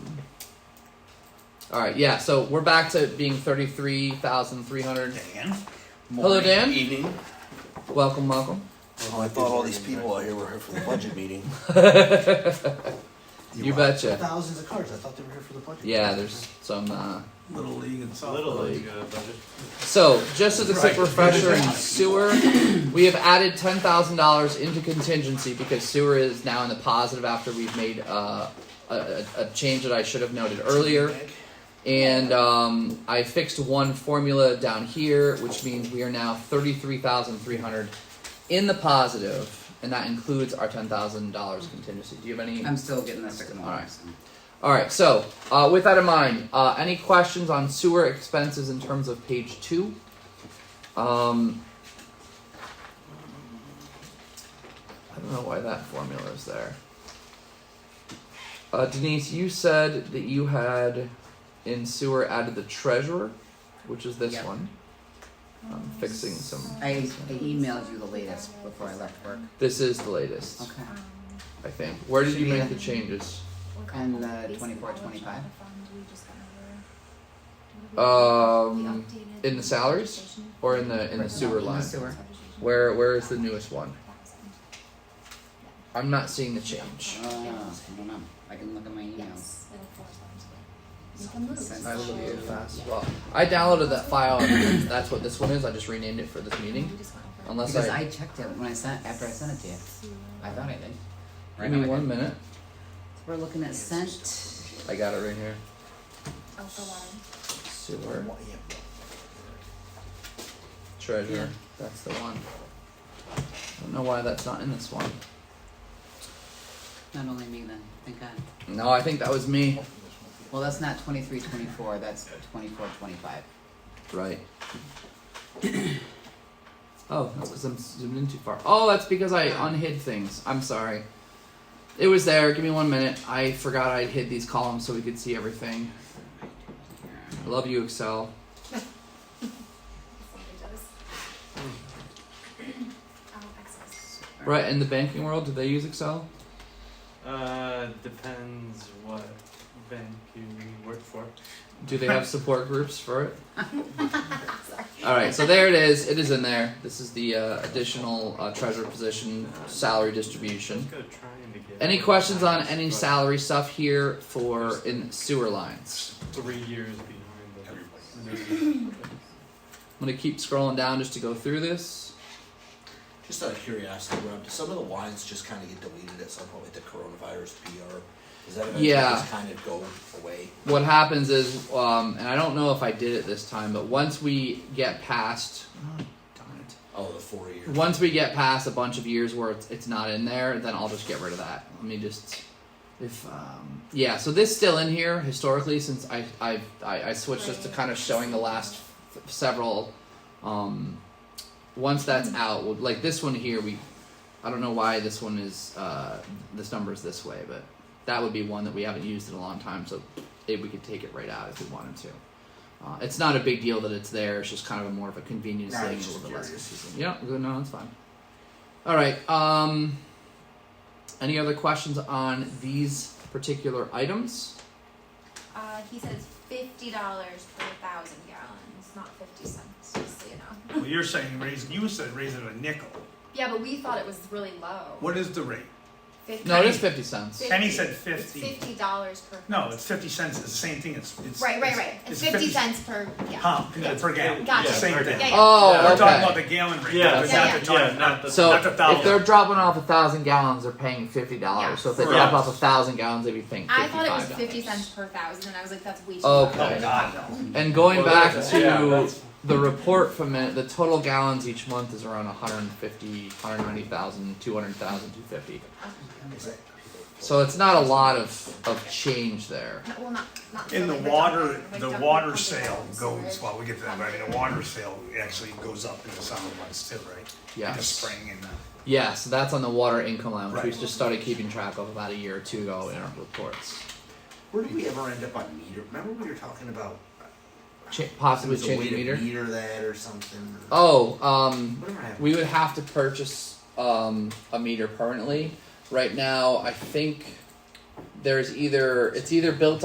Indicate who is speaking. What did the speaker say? Speaker 1: All right, yeah. So we're back to being thirty-three thousand three hundred.
Speaker 2: Dan.
Speaker 1: Hello, Dan.
Speaker 2: Evening.
Speaker 1: Welcome, welcome.
Speaker 2: Oh, I thought all these people out here were here for the budget meeting.
Speaker 1: You betcha.
Speaker 3: Thousands of cards. I thought they were here for the budget.
Speaker 1: Yeah, there's some. Uh...
Speaker 3: Little league and stuff.
Speaker 4: Little
Speaker 1: Like-
Speaker 4: league uh, budget.
Speaker 1: So, just as a quick
Speaker 2: Right.
Speaker 1: refresher in sewer, we have added ten thousand dollars into contingency because sewer is now in the positive after we've made uh, a, a, a change that I should have noted earlier. And um, I fixed one formula down here, which means we are now thirty-three thousand three hundred in the positive, and that includes our ten thousand dollars contingency. Do you have any?
Speaker 5: I'm still getting this second one.
Speaker 1: Alright.
Speaker 5: so.
Speaker 1: All right. So, uh, with that in mind, uh, any questions on sewer expenses in terms of page two? Um, I don't know why that formula is there. Uh, Denise, you said that you had in sewer added the treasurer, which is this
Speaker 5: Yep.
Speaker 1: one. I'm
Speaker 6: Mm-hmm.
Speaker 1: fixing some.
Speaker 5: I, I emailed you the latest before I left work.
Speaker 1: This is the latest,
Speaker 5: Okay.
Speaker 1: I think. Where did
Speaker 5: Should
Speaker 1: you
Speaker 5: be
Speaker 1: make
Speaker 5: the-
Speaker 1: the changes?
Speaker 5: And, uh, 24, 25?
Speaker 1: Um, in the salaries or in the in the
Speaker 5: Right,
Speaker 1: sewer
Speaker 5: in the
Speaker 1: line?
Speaker 5: sewer.
Speaker 1: Where where is the newest one? I'm not seeing the change.
Speaker 5: Uh, I don't know. I can look at my emails.
Speaker 6: Yes. little four times. You can lose.
Speaker 5: Sense
Speaker 1: I looked
Speaker 5: to-
Speaker 1: too fast. Well, I downloaded that file and that's what this one is. I just renamed it for this meeting. Unless
Speaker 5: Because
Speaker 1: I,
Speaker 5: I checked it when I sent, after I sent it to you. I thought I did.
Speaker 1: give
Speaker 5: now
Speaker 1: me
Speaker 5: I
Speaker 1: one
Speaker 5: did.
Speaker 1: minute.
Speaker 5: We're looking at sent.
Speaker 1: I got it right here.
Speaker 6: Alpha line.
Speaker 1: Sewer treasure. That's the one. I don't know why that's not in this one.
Speaker 5: Not only me then, thank God.
Speaker 1: No, I think that was me.
Speaker 5: Well, that's not twenty-three, twenty-four, that's twenty-four, twenty-five.
Speaker 1: Right. oh, that's because I'm zoomed in too far. Oh, that's because I unhid things. I'm sorry. It was there. Give me one minute. I forgot I hid these columns so we could see everything. I love you, Excel.
Speaker 6: Um, excess.
Speaker 1: Right, in the banking world, do they use Excel?
Speaker 4: Uh, depends what bank you work for.
Speaker 1: Do they have support groups for it?
Speaker 6: Sorry.
Speaker 1: All right, so there it is. It is in there. This is the uh, additional uh, treasure position salary distribution.
Speaker 4: Let's go trying to get
Speaker 1: Any questions on any
Speaker 4: But
Speaker 1: salary stuff here for in sewer lines?
Speaker 4: Three years behind the.
Speaker 1: I'm gonna keep scrolling down just to go through this.
Speaker 2: Just out of curiosity, Rob, do some of the lines just kind of get deleted at some point with the coronavirus PR? Does that eventually
Speaker 1: Yeah.
Speaker 2: just kind of go away?
Speaker 1: What happens is, um, and I don't know if I did it this time, but once we get past, oh, darn
Speaker 2: Oh, the four year.
Speaker 1: it. once we get past a bunch of years where it's, it's not in there, then I'll just get rid of that. Let me just, if um, yeah, so this still in here historically since I I I, I switched this to kind of showing the last f- several. Um, once that's out, we'll- like this one here, we, I don't know why this one is uh, this number is this way, but that would be one that we haven't used in a long time, so it, we could take it right out if we wanted to. Uh, it's not a big deal that it's there. It's just kind of a more of a convenience
Speaker 2: Nah,
Speaker 1: thing, a
Speaker 2: it's
Speaker 1: little
Speaker 2: just
Speaker 1: bit less
Speaker 2: curious.
Speaker 1: confusing. Yeah, no, no, it's fine. All right. Um, any other questions on these particular items?
Speaker 6: Uh, he says fifty dollars per thousand gallons, not fifty cents, just so you know.
Speaker 7: Well, you're saying raise, you said raise it a nickel.
Speaker 6: Yeah, but we thought it was really low.
Speaker 7: What is the rate?
Speaker 6: 50
Speaker 1: No, it is fifty cents.
Speaker 7: Penny said
Speaker 6: It's
Speaker 7: 50.
Speaker 6: Fifty dollars per.
Speaker 7: No, it's fifty cents, it's the same thing, it's, it's.
Speaker 6: Right, right, right. It's fifty cents per, yeah.
Speaker 7: Pump, per gallon,
Speaker 6: Gotcha.
Speaker 7: same
Speaker 4: per
Speaker 7: thing.
Speaker 6: Yeah, yeah.
Speaker 1: Oh,
Speaker 7: We're talking
Speaker 1: okay.
Speaker 7: about the gallon rate,
Speaker 4: Yeah,
Speaker 7: but
Speaker 6: yeah,
Speaker 7: not
Speaker 6: yeah.
Speaker 7: the
Speaker 4: Yeah,
Speaker 7: ton.
Speaker 4: not the.
Speaker 1: So
Speaker 7: Not the
Speaker 1: if
Speaker 7: thousand.
Speaker 1: they're dropping off a thousand gallons, they're paying fifty dollars.
Speaker 6: Yeah.
Speaker 1: So if they
Speaker 4: Right.
Speaker 1: drop off a thousand gallons, they'd be paying
Speaker 6: I
Speaker 1: fifty-five
Speaker 6: thought
Speaker 1: dollars.
Speaker 6: it was fifty cents per thousand, and I was like, that's way too
Speaker 1: Okay.
Speaker 6: low.
Speaker 7: Oh, God, no.
Speaker 1: And going
Speaker 4: Well,
Speaker 1: back
Speaker 4: that's-
Speaker 1: to
Speaker 4: yeah, that's-
Speaker 1: the report from it, the total gallons each month is around 150, 190,000, 200,000, 250. So it's not a lot of, of change there.
Speaker 6: No, Well, not, not.
Speaker 7: And the
Speaker 6: really, but
Speaker 7: water,
Speaker 6: like
Speaker 7: the
Speaker 6: dumping
Speaker 7: water
Speaker 6: pumping
Speaker 7: sale
Speaker 6: gallons,
Speaker 7: goes,
Speaker 6: right?
Speaker 7: well, we get to that, but I mean, the water sale actually goes up in the summer months too, right? In the
Speaker 1: Yes.
Speaker 7: spring and, uh,
Speaker 1: Yeah, so that's on the water income line, which we
Speaker 7: Right.
Speaker 1: just started keeping track of about a year or two ago in our reports.
Speaker 2: Where did we ever end up on meter? Remember we were talking about
Speaker 1: Ch- possibly
Speaker 2: there was a
Speaker 1: changing
Speaker 2: way to
Speaker 1: meter.
Speaker 2: meter that or something?
Speaker 1: Oh, um,
Speaker 2: Whatever happened.
Speaker 1: we would have to purchase um, a meter permanently. Right now, I think there's either it's either built